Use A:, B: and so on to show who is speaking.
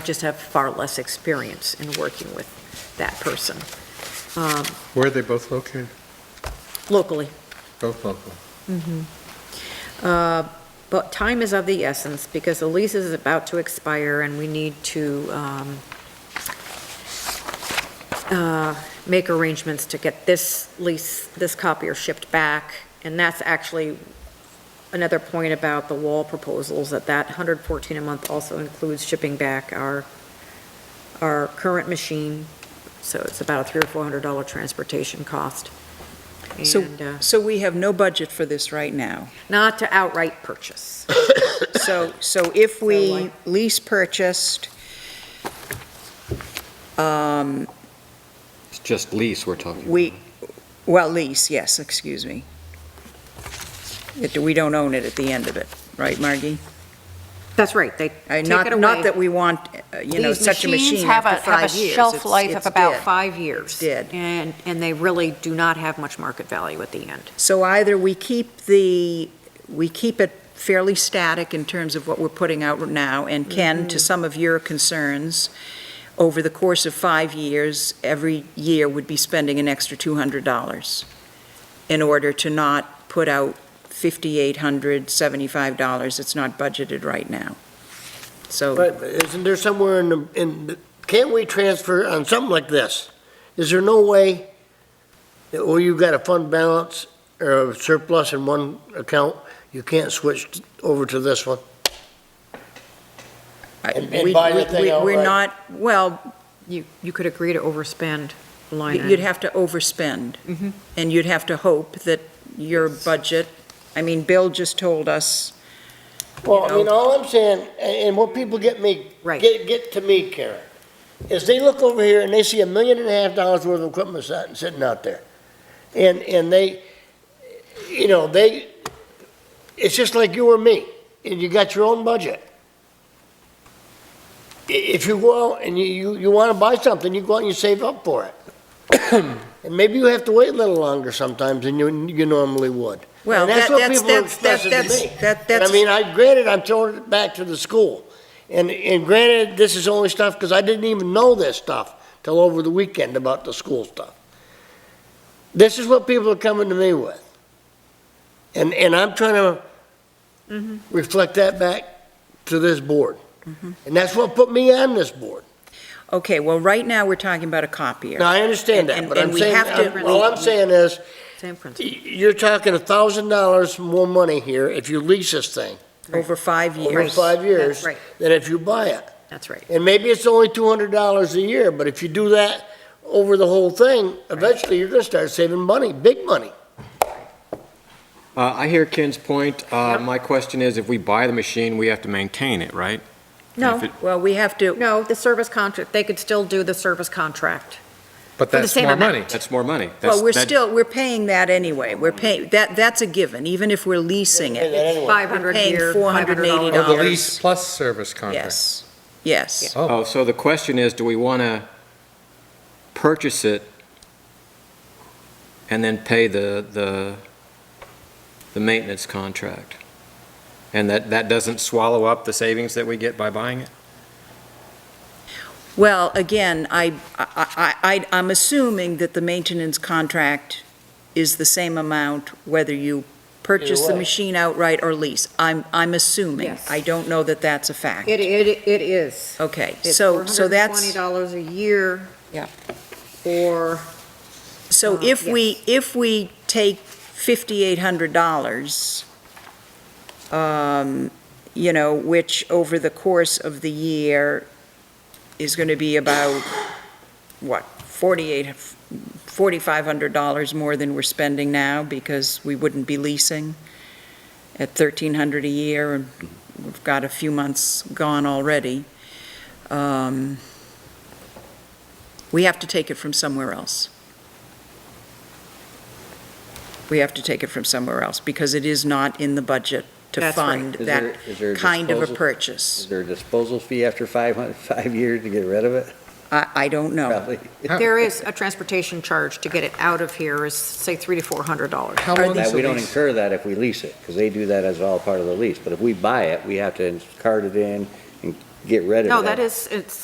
A: just have far less experience in working with that person um,
B: Where are they both located?
A: locally.
B: Both local.
A: Uh, But time is of the essence because the lease is about to expire and we need to um, uh, make arrangements to get this lease, this copier shipped back. And that's actually another point about the wall proposals, that that 114 a month also includes shipping back our, our current machine. So it's about a three or $400 transportation cost.
C: So,
A: And uh,
C: so we have no budget for this right now.
A: not to outright purchase.
C: So, so if
A: So
C: we
A: like-
C: lease purchased, um,
D: It's just lease we're talking about.
C: we, well, lease, yes, excuse me. It- We don't own it at the end of it, right, Margie?
A: That's right, they
C: I-
A: take
C: not-
A: it away.
C: Not that we want, uh, you know, such a
A: These machines
C: machine after five years.
A: have a, have a shelf
C: It's-
A: life of
C: it's
A: about
C: dead.
A: five years.
C: dead.
A: And, and they really do not have much market value at the end.
C: So either we keep the, we keep it fairly static in terms of what we're putting out now, and Ken,
E: Mm-hmm.
C: to some of your concerns, over the course of five years, every year would be spending an extra $200 in order to not put out $5,875 that's not budgeted right now. So,
E: But isn't there somewhere in the, in, the- can't we transfer on something like this? Is there no way that where you've got a fund balance or a surplus in one account, you can't switch over to this one?
C: I-
E: And- and
C: we-
E: buy the
C: we-
E: thing
C: we- we're
E: outright.
C: not, well,
A: You, you could agree to overspend a line
C: you'd
A: item.
C: have to overspend.
E: Mm-hmm.
A: Mhm.
C: And you'd have to hope that your budget, I mean, Bill just told us,
E: Well, I
C: You
E: mean,
C: know-
E: all I'm saying, and, and what people get me,
A: Right,
E: get, get to me, Karen, is they look over here and they see a million and a half dollars worth of equipment sitting, sitting out there. And, and they, you know, they, it's just like you or me, and you got your own budget. I- If you go out and you, you, you wanna buy something, you go out and you save up for it. And maybe you have to wait a little longer sometimes than you, you normally would.
C: well,
E: And
C: that-
E: that's what
C: that's,
E: people are
C: that's, that's,
E: expressing to
C: that's,
E: me.
C: that-
E: And
C: that's.
E: I mean, I, granted, I'm throwing it back to the school. And, and granted, this is only stuff, because I didn't even know this stuff till over the weekend about the school stuff. This is what people are coming to me with. And, and I'm trying to
C: Mm-hmm.
E: reflect that back to this board. And that's what put me on this board.
C: Okay, well, right now, we're talking about a copier.
E: Now, I understand
C: And-
E: that, but
C: and
E: I'm
C: we
E: saying,
C: have to-
E: I'm- all I'm saying is,
A: same principle.
E: y- you're talking a thousand dollars more money here if you lease this thing
C: Over five
E: over
C: years.
E: five years
A: That's right,
E: than if you buy it.
A: that's right.
E: And maybe it's only two hundred dollars a year, but if you do that over the whole thing, eventually you're gonna start saving money, big money.
D: Uh, I hear Ken's point. Uh, My question is, if we buy the machine, we have to maintain it, right?
A: No,
D: If it-
C: Well, we have to,
A: no, the service contract, they could still do the service contract.
B: But
A: the
B: that's
A: same
B: more
A: amount.
B: money.
D: That's more money. That's-
C: well, we're
D: that-
C: still, we're paying that anyway. We're paying, that, that's a given, even if we're leasing it.
E: Anyway.
A: 500
C: Paying
A: here,
C: $480.
A: $500.
B: Oh, the
C: dollars.
B: lease plus service contract.
C: Yes, yes.
D: Oh, so the question is, do we want to purchase it and then pay the, the, the maintenance contract? And that, that doesn't swallow up the savings that we get by buying it?
C: Well, again, I, I, I, I- I'm assuming that the maintenance contract is the same amount whether you purchase the
E: way.
C: machine outright or lease. I'm, I'm assuming.
A: Yes.
C: I don't know that that's a fact.
A: It, it, it is.
C: Okay,
A: It's
C: so, so that's.
A: $420 a year.
C: Yeah.
A: Or
C: So
A: Uh,
C: if we, if we take fifty-eight hundred dollars, um, you know, which over the course of the year is gonna be about, what, forty-eight, forty-five hundred dollars more than we're spending now because we wouldn't be leasing at thirteen hundred a year, and we've got a few months gone already. Um, We have to take it from somewhere else we have to take it from somewhere else, because it is not in the budget to
A: That's right.
C: fund
F: Is
C: that
F: there- is there a
C: kind of a
F: disposal- Is
C: purchase.
F: there a disposal fee after five hun- five years to get rid of it?
C: I, I don't know.
F: Probably.
A: there is a transportation charge to get it out of here is, say, three to $400.
B: How long is
F: That-
B: the
F: We don't
B: lease?
F: incur that if we lease it, because they do that as all part of the lease. But if we buy it, we have to cart it in and get rid of it.
A: No, that is, it's,